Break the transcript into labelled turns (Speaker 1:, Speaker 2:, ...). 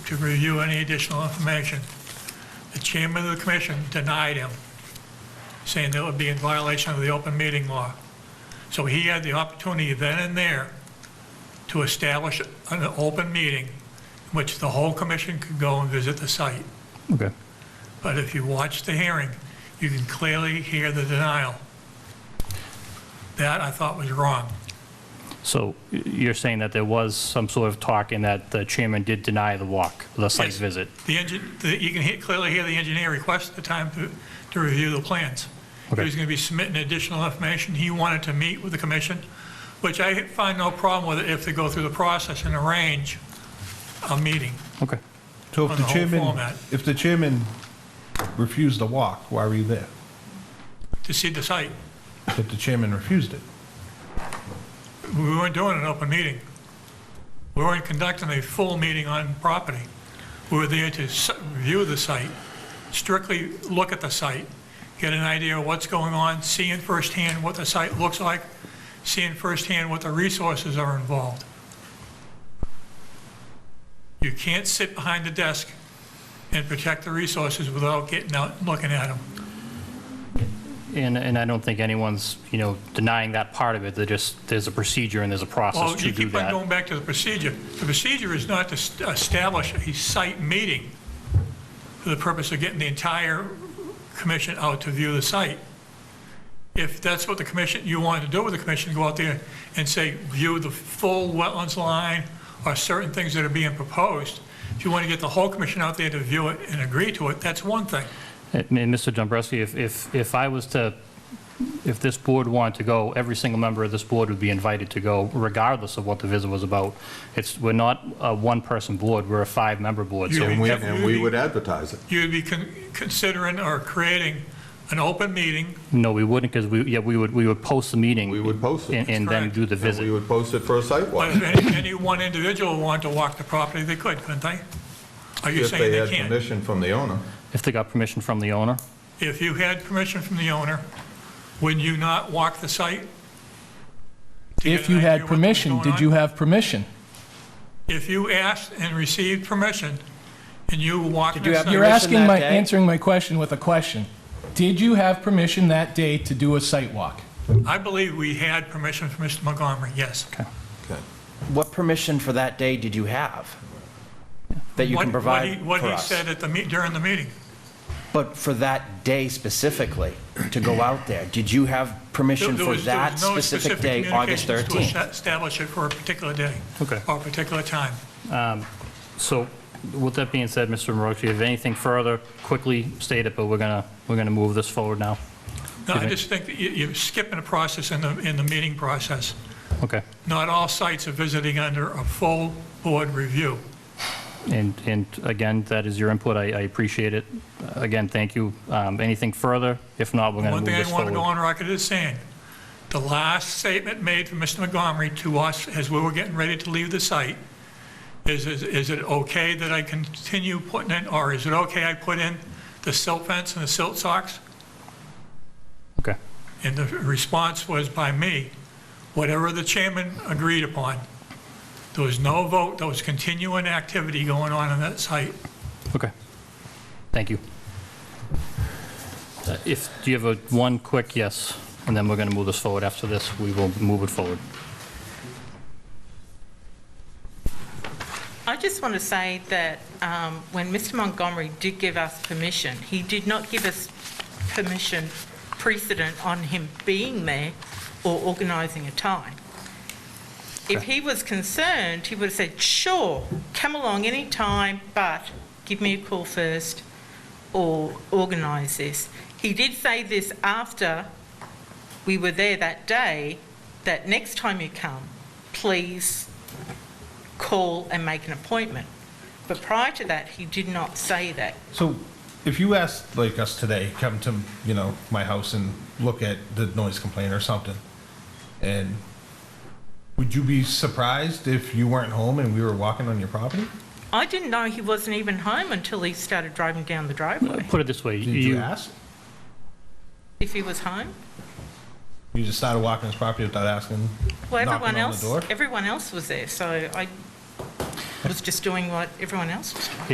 Speaker 1: to review any additional information. The chairman of the commission denied him, saying that would be in violation of the open meeting law. So he had the opportunity then and there to establish an open meeting in which the whole commission could go and visit the site.
Speaker 2: Okay.
Speaker 1: But if you watch the hearing, you can clearly hear the denial. That I thought was wrong.
Speaker 2: So y- you're saying that there was some sort of talk and that the chairman did deny the walk, the site
Speaker 1: Yes.
Speaker 2: visit?
Speaker 1: The engine, the, you can hear, clearly hear the engineer request the time to, to review the plans. He
Speaker 2: Okay.
Speaker 1: was gonna be submitting additional information, he wanted to meet with the commission, which I find no problem with it if they go through the process and arrange a meeting.
Speaker 2: Okay.
Speaker 3: So if
Speaker 1: on
Speaker 3: the
Speaker 1: the whole
Speaker 3: chairman,
Speaker 1: format.
Speaker 3: if the chairman refused the walk, why were you there?
Speaker 1: to see the site.
Speaker 3: If the chairman refused it?
Speaker 1: We weren't doing an open meeting. We weren't conducting a full meeting on property. We were there to s- view the site, strictly look at the site, get an idea of what's going on, seeing firsthand what the site looks like, seeing firsthand what the resources are involved. You can't sit behind the desk and protect the resources without getting out and looking at them.
Speaker 2: And, and I don't think anyone's, you know, denying that part of it. They're just, there's a procedure and there's a process
Speaker 1: Well,
Speaker 2: to
Speaker 1: Oh, you
Speaker 2: do
Speaker 1: keep on
Speaker 2: that.
Speaker 1: going back to the procedure. The procedure is not to st- establish a site meeting for the purpose of getting the entire commission out to view the site. If that's what the commission, you wanted to do with the commission, go out there and say, view the full wetlands line or certain things that are being proposed. If you want to get the whole commission out there to view it and agree to it, that's one thing.
Speaker 2: And and Mr. Dombrowski, if, if, if I was to, if this board wanted to go, every single member of this board would be invited to go regardless of what the visit was about. It's, we're not a one-person board, we're a five-member board.
Speaker 1: You-
Speaker 2: So
Speaker 4: And we,
Speaker 1: Definitely.
Speaker 4: and we would advertise it.
Speaker 1: You'd be con- considering or creating an open meeting
Speaker 2: No, we wouldn't, because we, yeah, we would, we would post the meeting.
Speaker 4: We would post it.
Speaker 2: And, and then
Speaker 1: Correct.
Speaker 2: do the
Speaker 4: And we
Speaker 2: visit.
Speaker 4: would post it for a site
Speaker 1: But
Speaker 4: walk
Speaker 1: if any, any one individual wanted to walk the property, they could, couldn't they? Are you
Speaker 4: if
Speaker 1: saying
Speaker 4: they had
Speaker 1: they can't?
Speaker 4: permission from the owner.
Speaker 2: If they got permission from the owner?
Speaker 1: If you had permission from the owner, would you not walk the site? to get
Speaker 5: If
Speaker 1: an
Speaker 5: you
Speaker 1: idea
Speaker 5: had
Speaker 1: what was
Speaker 5: permission,
Speaker 1: going
Speaker 5: did
Speaker 1: on?
Speaker 5: you have permission?
Speaker 1: If you asked and received permission, and you walked
Speaker 6: Did you
Speaker 1: the
Speaker 6: have
Speaker 1: site...
Speaker 5: You're
Speaker 6: Permission
Speaker 5: asking
Speaker 6: that
Speaker 5: my,
Speaker 6: day?
Speaker 5: answering my question with a question. Did you have permission that day to do a site walk?
Speaker 1: I believe we had permission from Mr. Montgomery, yes.
Speaker 4: Okay.
Speaker 6: What permission for that day did you have that you
Speaker 1: What-
Speaker 6: can
Speaker 1: what
Speaker 6: provide
Speaker 1: he- What
Speaker 6: for
Speaker 1: he
Speaker 6: us?
Speaker 1: said at the, meet- during the meeting.
Speaker 6: But for that day specifically, to go out there, did you have
Speaker 1: There-
Speaker 6: permission
Speaker 1: there
Speaker 6: for
Speaker 1: was- there
Speaker 6: that
Speaker 1: was no
Speaker 6: specific day, August
Speaker 1: communications to
Speaker 6: 13th?
Speaker 1: es- Establish it for a particular day.
Speaker 2: Okay.
Speaker 1: Or a particular time.
Speaker 2: So with that being said, Mr. Marucci, if you have anything further, quickly state it, but we're gonna, we're gonna move this forward now.
Speaker 1: No, I
Speaker 2: Okay.
Speaker 1: just think that you- you're skipping a process in the, in the meeting process.
Speaker 2: Okay.
Speaker 1: Not all sites are visiting under a full board review.
Speaker 2: And, and again, that is your input. I, I appreciate it. Again, thank you. Um, Anything further? If not, we're gonna
Speaker 1: One
Speaker 2: move
Speaker 1: thing
Speaker 2: this
Speaker 1: I want to go
Speaker 2: forward.
Speaker 1: on record as saying, the last statement made from Mr. Montgomery to us as we were getting ready to leave the site is, is- is it okay that I continue putting in, or is it okay I put in the silt fence and the silt socks?
Speaker 2: Okay,
Speaker 1: And the response was by me, whatever the chairman agreed upon. There was no vote, there was continuing activity going on on that site.
Speaker 2: okay. Thank you. Uh, If, do you have a, one quick yes? And then we're gonna move this forward. After this, we will move it forward.
Speaker 7: I just want to say that um, when Mr Montgomery did give us permission, he did not give us permission precedent on him being there or organising a time. If he was concerned, he would have said, sure, come along any time, but give me a call first or organise this. He did say this after we were there that day, that next time you come, please call and make an appointment. But prior to that, he did not say that.
Speaker 3: So if you asked like us today, come to, you know, my house and look at the noise complaint or something, and would you be surprised if you weren't home and we were walking on your property?
Speaker 7: I didn't know he wasn't even home until he started driving down the driveway.
Speaker 2: Put it this way.
Speaker 3: Did you ask?
Speaker 7: If he was home,
Speaker 3: You just started walking his property without asking,
Speaker 7: well,
Speaker 3: knocking
Speaker 7: everyone
Speaker 3: on the
Speaker 7: else,
Speaker 3: door?
Speaker 7: everyone else was there, so I, was just doing what everyone else was doing.